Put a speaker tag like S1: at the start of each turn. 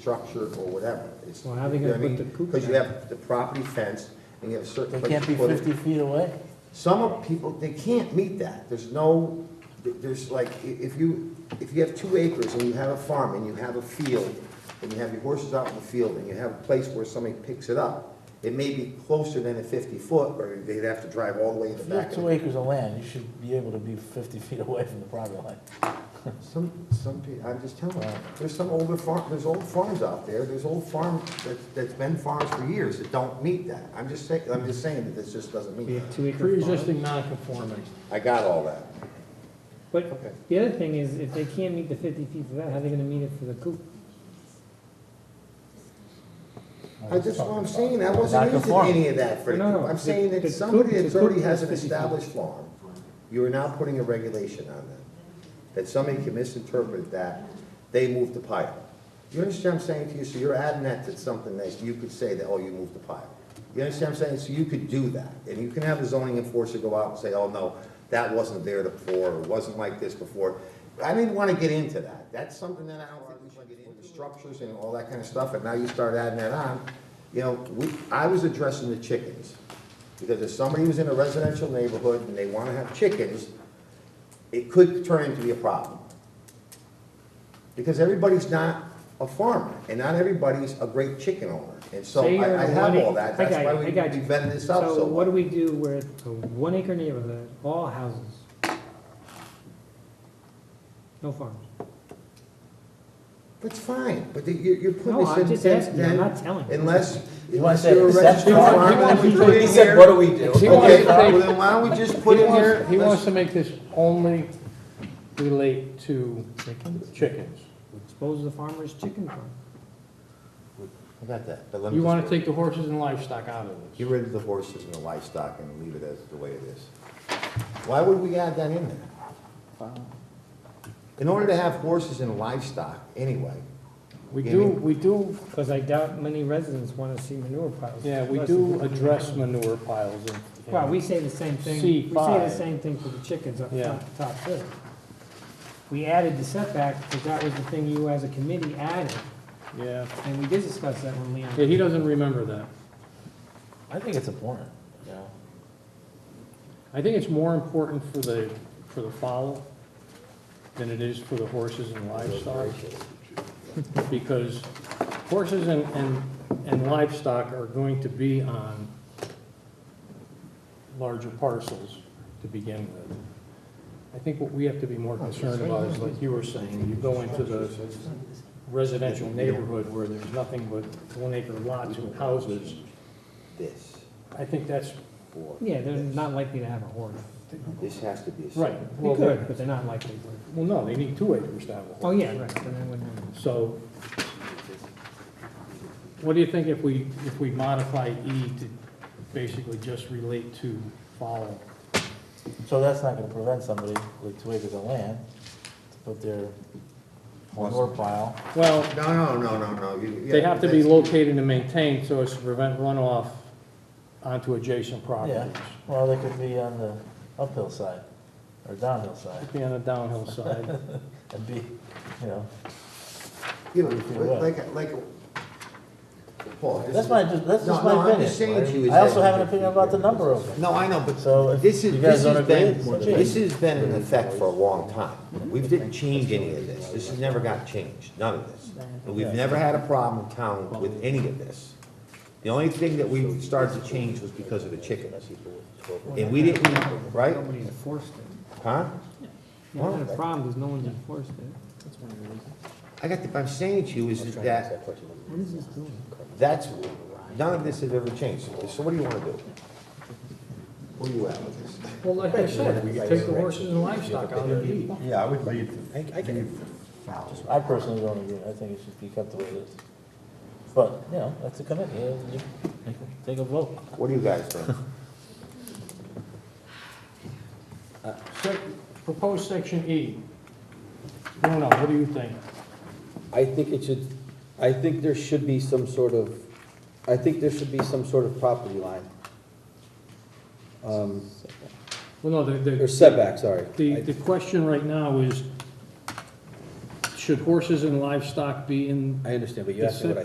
S1: structure or whatever. It's-
S2: Well, how they
S1: you know
S2: gonna
S1: what I
S2: put
S1: mean?
S2: the coop
S1: Because you
S2: down?
S1: have the property fence, and you have certain.
S3: They
S1: place
S3: can't
S1: to
S3: be
S1: put it.
S3: fifty feet away?
S1: Some of people, they can't meet that. There's no, there's like, i- if you, if you have two acres and you have a farm and you have a field, and you have your horses out in the field, and you have a place where somebody picks it up, it may be closer than a fifty foot, or they'd have to drive all the way in the
S3: If you have
S1: back. of
S3: two
S1: it.
S3: acres of land, you should be able to be fifty feet away from the property line.
S1: Some, some people, I'm just telling you, there's some older farm, there's old farms out there, there's old farm, that's, that's been farms for years that don't meet that. I'm just saying, I'm just saying that this just doesn't
S2: Be
S1: meet
S2: a
S1: that.
S2: two-acre farm.
S4: Pre-existing non-conforming.
S1: I got all that. Okay.
S2: But the other thing is, if they can't meet the fifty feet for that, how are they gonna meet it for the coop?
S1: I just, what I'm saying, I wasn't
S3: Not
S1: using
S3: conforming.
S1: any of that for the,
S2: No, no,
S1: I'm
S2: the-
S1: saying
S2: the
S1: that somebody
S2: coop-
S1: that's
S2: the coop
S1: already has an
S2: is 50 feet.
S1: established farm, you are now putting a regulation on them, that somebody can misinterpret that, they moved the pile. You understand what I'm saying to you? So you're adding that to something that you could say that, oh, you moved the pile. You understand what I'm saying? So you could do that, and you can have the zoning enforcer go out and say, oh, no, that wasn't there before, or wasn't like this before. I didn't wanna get into that. That's something that I don't think we should get into, structures and all that kind of stuff, and now you start adding that on. You know, we, I was addressing the chickens. Because if somebody was in a residential neighborhood and they want to have chickens, it could turn into be a problem. Because everybody's not a farmer, and not everybody's a great chicken owner. And so
S2: Say you're
S1: I I
S2: in a
S1: have
S2: one
S1: all
S2: ac-
S1: that,
S2: I
S1: that's
S2: got
S1: why
S2: you,
S1: we
S2: I
S1: we
S2: got you.
S1: vetted this out
S2: So
S1: so
S2: what
S1: well.
S2: do we do where it's a one-acre neighborhood, all houses? No farms.
S1: That's fine, but the- you're you're putting
S2: No, I'm
S1: this
S2: just
S1: in,
S2: asking, I'm
S1: then-
S2: not telling you.
S1: unless,
S3: You wanna
S1: unless
S3: say
S1: you're a
S3: except
S1: registered
S3: farm?
S1: farmer, then we put it in here.
S5: What do we do?
S4: He wants
S1: Okay,
S4: to
S1: well,
S4: make-
S1: then why don't we just put
S4: he
S1: in here?
S4: wants, he wants
S1: let's-
S4: to make this only relate to chickens.
S2: Expose the farmer's chicken farm.
S1: I got that, but let me
S4: You
S1: just
S4: wanna
S1: put-
S4: take the horses and livestock out of
S1: Get
S4: this.
S1: rid of the horses and the livestock and leave it as the way it is. Why would we add that in there? In order to have horses and livestock, anyway,
S4: We do, we do,
S2: Because I doubt many residents want to see manure piles.
S4: yeah, we
S2: Plus,
S4: do
S2: it's-
S4: address manure piles and.
S2: Well, we say the same thing, we say the
S4: C5.
S2: same thing for the chickens up
S4: Yeah.
S2: top, top too. We added the setback, because that was the thing you as a committee added,
S4: Yeah,
S2: and we did discuss that when Leon.
S4: yeah, he doesn't remember that.
S3: I think it's important, you know?
S4: I think it's more important for the, for the fowl than it is for the horses and livestock. Because horses and, and, and livestock are going to be on larger parcels to begin with. I think what we have to be more concerned about is, like you were saying, you go into the residential neighborhood where there's nothing but one acre lots and houses.
S1: this
S4: I think that's,
S1: or
S2: Yeah, they're
S1: this.
S2: not likely to have a horse.
S1: This has to be a.
S4: right.
S1: separate-
S2: They
S4: Well,
S2: could, but they're not likely to.
S4: Well, no, they need two acres to have a horse.
S2: Oh, yeah, right, then I wouldn't-
S4: So what do you think if we, if we modify E to basically just relate to follow?
S3: So that's not gonna prevent somebody with two acres of land to put their manure pile.
S4: Well,
S1: No, no, no, no, no. you-
S4: they
S1: yeah,
S4: have to be
S1: that's-
S4: located and maintained so as to prevent runoff onto adjacent
S3: Yeah,
S4: properties.
S3: well, they could be on the uphill side or downhill side
S4: Be on the downhill side.
S3: and be, you know.
S1: You know, like, like, Paul. this
S3: That's
S1: is-
S3: my, that's
S1: No,
S3: just
S1: no,
S3: my
S1: I'm
S3: opinion.
S1: just saying to you is
S3: I also
S1: that-
S3: have an opinion about the number of them.
S1: No, I know, but
S3: So if
S1: This is,
S3: you
S1: this
S3: guys don't
S1: has
S3: agree,
S1: been,
S3: it's a
S1: this
S3: change.
S1: has been in effect for a long time. We didn't change any of this. This has never got changed, none of this. And we've never had a problem in town with any of this. The only thing that we started to change was because of the chickens. And we didn't, right?
S2: Nobody's enforced it.
S1: Huh?
S2: Yeah,
S1: Well,
S2: that's the problem, is no one's enforced it.
S1: I got, the- I'm saying to you is that,
S2: What is this doing?
S1: that's, none of this has ever changed. So what do you wanna do? Where you at with this?
S4: Well, like I said, we could take the horses and livestock out of E.
S5: Yeah, I would leave,
S3: I personally don't agree, I think it should be kept the way it is. But, you know, that's a committee, You- you make a- take a vote.
S1: What do you guys think?
S4: Sec- Proposed section E. No, no, what do you think?
S6: I think it should, I think there should be some sort of, I think there should be some sort of property line. Um,
S4: Well, no, the, the.
S6: Or setback, sorry.
S4: The, the question right now is,
S7: should horses and livestock be in
S4: I understand, but you asked me what I.